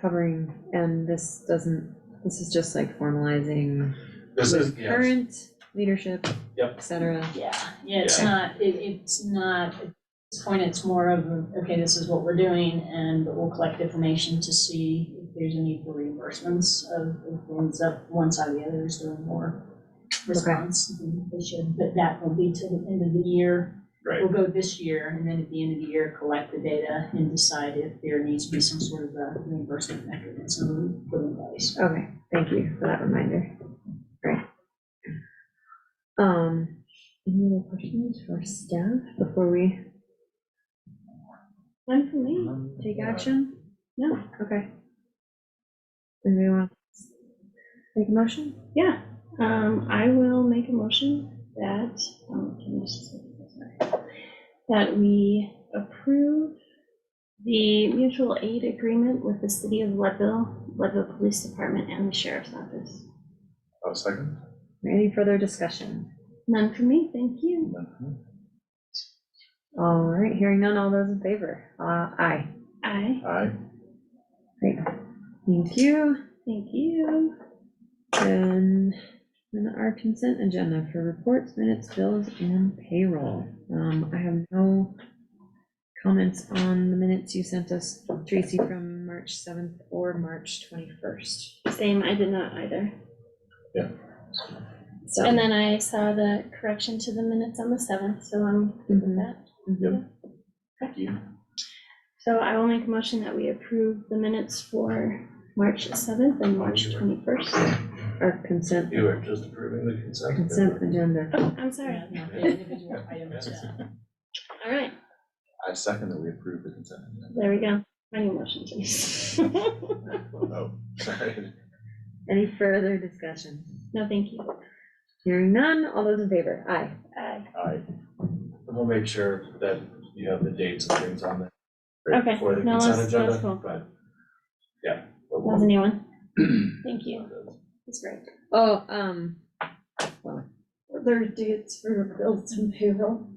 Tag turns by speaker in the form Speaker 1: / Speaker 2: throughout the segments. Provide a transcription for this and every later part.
Speaker 1: covering, and this doesn't, this is just like formalizing
Speaker 2: This is,
Speaker 1: with
Speaker 2: yeah, it's-
Speaker 1: current leadership,
Speaker 2: Yep.
Speaker 1: et cetera.
Speaker 3: Yeah, yeah, it's
Speaker 2: Yeah.
Speaker 3: not, it, it's not, at this point, it's more of, okay, this is what we're doing, and we'll collect information to see if there's a need for reimbursements of, if it ends up, one side or the other is doing more response than they should, but that will be to the end of the year.
Speaker 2: Right.
Speaker 3: We'll go this year, and then at the end of the year, collect the data and decide if there needs to be some sort of a reimbursement mechanism put in place.
Speaker 1: Okay, thank you for that reminder. Great. Um, any other questions for staff before we? None for me. Take action? No, okay. Anybody want to make a motion?
Speaker 4: Yeah, um, I will make a motion that, um, can I just- sorry. that we approve the mutual aid agreement with the city of Leadville, Leadville Police Department and the Sheriff's Office.
Speaker 2: oh, second?
Speaker 1: Any further discussion?
Speaker 4: None for me, thank you.
Speaker 2: Mhm.
Speaker 1: All right, hearing none, all those in favor? Uh, aye.
Speaker 4: Aye,
Speaker 2: Aye,
Speaker 1: Great. Thank you.
Speaker 4: thank you.
Speaker 1: And then our consent agenda for reports, minutes, bills, and payroll. Um, I have no comments on the minutes you sent us, Tracy, from March seventh or March twenty-first.
Speaker 4: Same, I did not either.
Speaker 1: So,
Speaker 4: And then I saw the correction to the minutes on the seventh, so I'm good with
Speaker 1: Mhm.
Speaker 4: that.
Speaker 2: yep. Thank you.
Speaker 4: So I will make a motion that we approve the minutes for March seventh and March twenty-first.
Speaker 1: our consent,
Speaker 2: You are just approving the consent.
Speaker 1: consent agenda.
Speaker 4: Oh, I'm sorry.
Speaker 3: Yeah, not the individual items, yeah.
Speaker 4: All right,
Speaker 2: I second that we approve the consent. agenda.
Speaker 4: there we go. Any motion, please? No,
Speaker 2: Oh, sorry.
Speaker 1: Any further discussion?
Speaker 4: thank you.
Speaker 1: Hearing none, all those in favor? Aye.
Speaker 4: Aye.
Speaker 2: Aye. And we'll make sure that you have the dates and things on there. right
Speaker 4: Okay,
Speaker 2: For the
Speaker 4: no,
Speaker 2: consent
Speaker 4: that's-
Speaker 2: agenda,
Speaker 4: that's cool.
Speaker 2: but, yeah.
Speaker 4: That was a new one. Thank you. That's great.
Speaker 1: Oh, um, well,
Speaker 5: their dates for bills and payroll.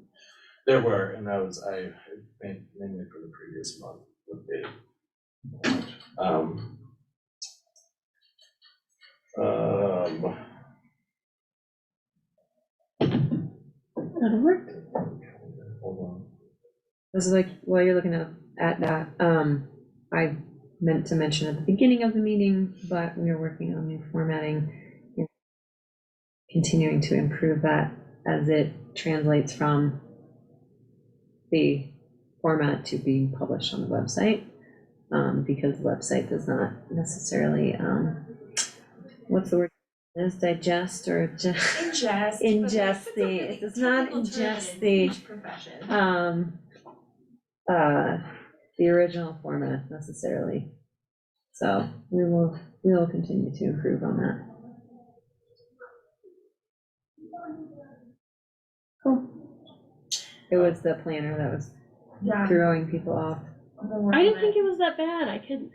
Speaker 2: There were, and that was, I, main- mainly for the previous month, with the, um, um,
Speaker 4: That'll work.
Speaker 2: hold
Speaker 1: this is like, while you're looking up at that, um, I meant to mention at the beginning of the meeting, but we are working on new formatting. and Continuing to improve that as it translates from the format to being published on the website. Um, because the website does not necessarily, um, what's the word? Is digest or just?
Speaker 5: Ingest.
Speaker 1: Ingest the- it does not ingest the-
Speaker 5: Profession.
Speaker 1: um, uh, the original format necessarily. So we will, we will continue to improve on that.
Speaker 4: Cool.
Speaker 1: It was the planner that was
Speaker 5: Yeah.
Speaker 1: throwing people off.
Speaker 4: I didn't think it was that bad. I could,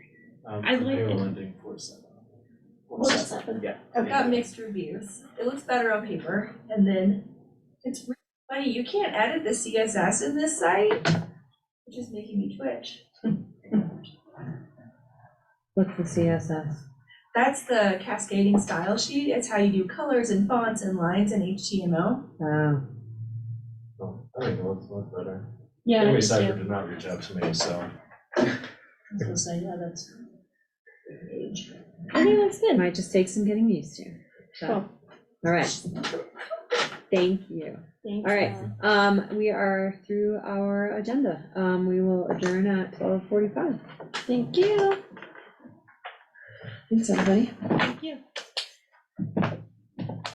Speaker 2: on. Um,
Speaker 4: I
Speaker 2: for
Speaker 4: like it.
Speaker 2: payroll ending four seven. Four
Speaker 4: Four
Speaker 2: seven,
Speaker 4: seven.
Speaker 2: yeah.
Speaker 5: I've got mixed reviews. It looks better on paper and then it's really funny, you can't edit the CSS in this site, which is making me twitch.
Speaker 1: What's the CSS?
Speaker 5: That's the cascading style sheet. It's how you do colors and fonts and lines in HTML.
Speaker 1: Oh,
Speaker 2: Oh, I think it looks a lot better.
Speaker 4: yeah. I
Speaker 2: Anyway,
Speaker 4: could
Speaker 2: Cypher
Speaker 4: do-
Speaker 2: did not reach out to me, so.
Speaker 3: I was gonna say, yeah, that's.
Speaker 4: I think that's
Speaker 1: it
Speaker 4: good.
Speaker 1: might just take some getting used to. So,
Speaker 4: Cool.
Speaker 1: All right. Thank you.
Speaker 4: Thanks.
Speaker 1: All right,
Speaker 4: Ellen.
Speaker 1: um, we are through our agenda. Um, we will adjourn at twelve forty-five.
Speaker 4: Thank you.
Speaker 1: Thanks, everybody.
Speaker 4: Thank you.